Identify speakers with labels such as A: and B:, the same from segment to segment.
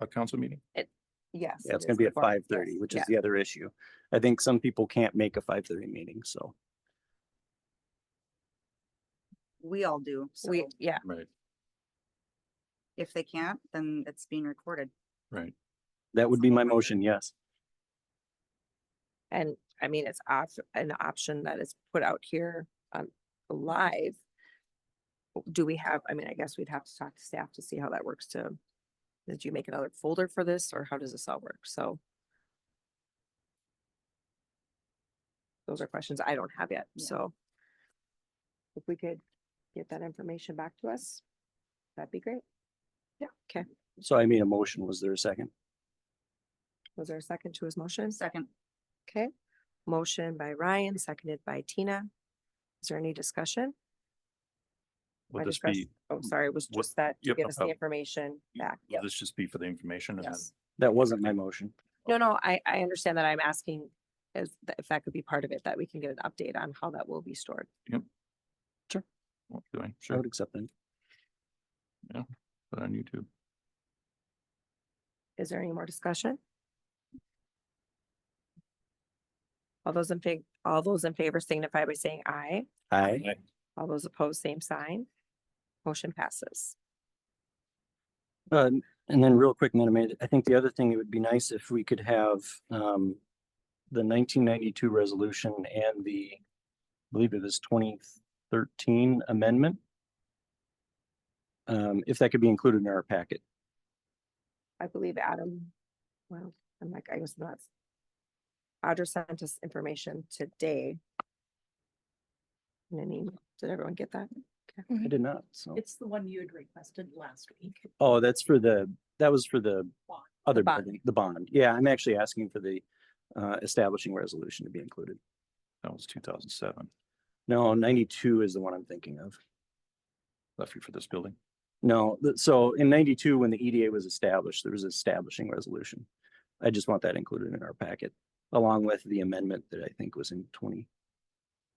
A: a council meeting?
B: Yes.
C: Yeah, it's
B: it
C: gonna
B: is
C: be at
B: before-
C: five thirty,
B: yes,
C: which
B: yeah.
C: is the other issue. I think some people can't make a five thirty meeting, so.
D: We all do. So
B: We, yeah,
A: Right,
D: if they can't, then it's being recorded.
A: right.
C: That would be my motion, yes.
B: and I mean, it's off, an option that is put out here on live. Do we have, I mean, I guess we'd have to talk to staff to see how that works to, did you make another folder for this or how does this all work? So. Those are questions I don't have yet,
D: Yeah.
B: so. If we could get that information back to us, that'd be great. Yeah, okay.
C: So I made a motion. Was there a second?
B: Was there a second to his motion?
D: Second,
B: Okay, motion by Ryan, seconded by Tina. Is there any discussion?
A: Will
B: I
A: this
B: discussed-
A: be,
B: Oh, sorry, it was
A: Mm, what-
B: just that to
A: yep, oh. no
B: get us the
A: problem.
B: information back.
A: will
B: Yep,
A: this just be for the information and then?
B: yes.
C: That wasn't my motion.
B: No, no, I, I understand that I'm asking if, th- if that could be part of it, that we can get an update on how that will be stored.
A: what we're Doing,
C: I
A: sure,
C: would accept that.
A: put it on YouTube.
B: Is there any more discussion? All those in fa- all those in favor signify by saying aye.
C: Aye.
B: All those opposed, same sign. Motion passes.
C: Uh, and then real quick, Madam Mayor, I think the other thing, it would be nice if we could have, um, the nineteen ninety-two resolution and the, I believe it was twenty thirteen amendment. Um, if that could be included in our packet.
B: I believe Adam, well, I'm like, I was not. Audra sent us information today. In an email. Did everyone get that?
C: I did not, so.
E: It's the one you had requested last week.
C: Oh, that's for the, that was for the
E: Bond.
C: other,
B: bond.
C: building, the bond. Yeah, I'm actually asking for the uh, establishing resolution to be included.
A: That was two thousand seven.
C: No, ninety-two is the one I'm thinking of.
A: Left you for this building.
C: No, th- so in ninety-two, when the EDA was established, there was an establishing resolution. I just want that included in our packet, along with the amendment that I think was in twenty,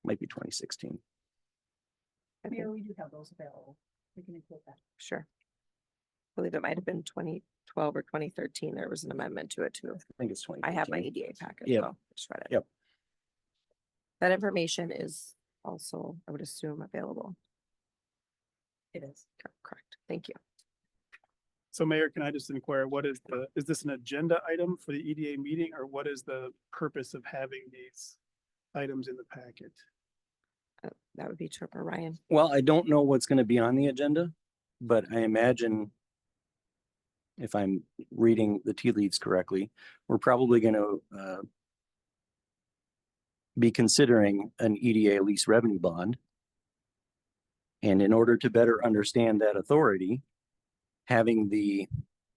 C: might be twenty sixteen.
B: I
E: Mayor,
B: think-
E: we do have those available. We can include that.
B: Sure. I Believe it might have been twenty twelve or twenty thirteen. There was an amendment to it too.
C: I think it's twenty.
B: I have my E EDA packet.
C: Yep.
B: so Just read it.
C: Yep.
B: That information is also, I would assume, available.
E: It is.
B: Cor- Correct. Thank you.
F: So Mayor, can I just inquire, what is the, is this an agenda item for the EDA meeting or what is the purpose of having these items in the packet?
B: Uh, That would be Trevor Ryan.
C: Well, I don't know what's gonna be on the agenda, but I imagine if I'm reading the tea leaves correctly, we're probably gonna uh be considering an EDA lease revenue bond. And in order to better understand that authority, having the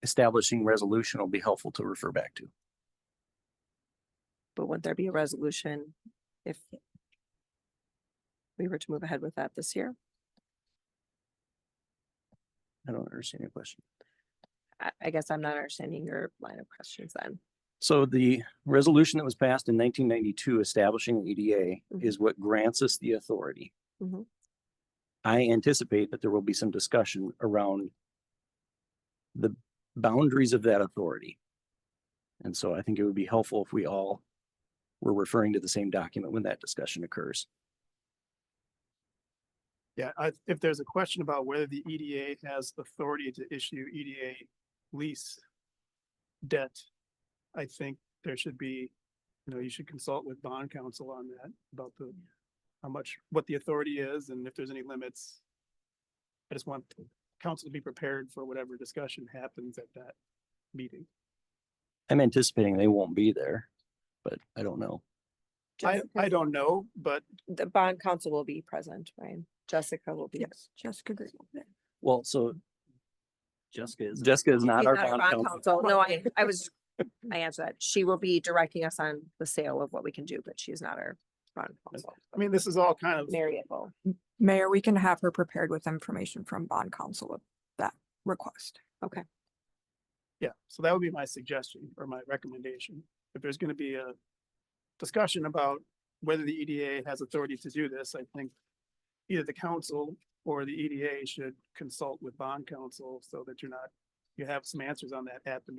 C: establishing resolution will be helpful to refer back to.
B: But wouldn't there be a resolution if we were to move ahead with that this year?
C: I don't understand your question.
B: I, I guess I'm not understanding your line of questions then.
C: So the resolution that was passed in nineteen ninety-two establishing the EDA is what grants us the authority.
B: Mhm.
C: I anticipate that there will be some discussion around the boundaries of that authority. And so I think it would be helpful if we all were referring to the same document when that discussion occurs.
F: Yeah, I, if there's a question about whether the EDA has authority to issue EDA lease debt, I think there should be, you know, you should consult with bond counsel on that, about the, how much, what the authority is and if there's any limits. I just want council to be prepared for whatever discussion happens at that meeting.
C: I'm anticipating they won't be there, but I don't know.
F: I,
B: Jessica-
F: I don't know, but
B: The bond council will be present, Ryan. Jessica will be.
E: Yes, Jessica Green.
C: Well, so Jessica is. Jessica is not
B: She's
C: our
B: not our
C: bond
B: bond
C: counsel.
B: council. No, I, I was, I answered that. She will be directing us on the sale of what we can do, but she's not our bond council.
F: I mean, this is all kind of.
B: Marriott will.
G: Mayor, we can have her prepared with information from bond counsel of that request.
F: Yeah, so that would be my suggestion or my recommendation. If there's gonna be a discussion about whether the EDA has authority to do this, I think either the council or E the EDA should consult with bond counsel so that you're not, you have some answers on that at the meeting.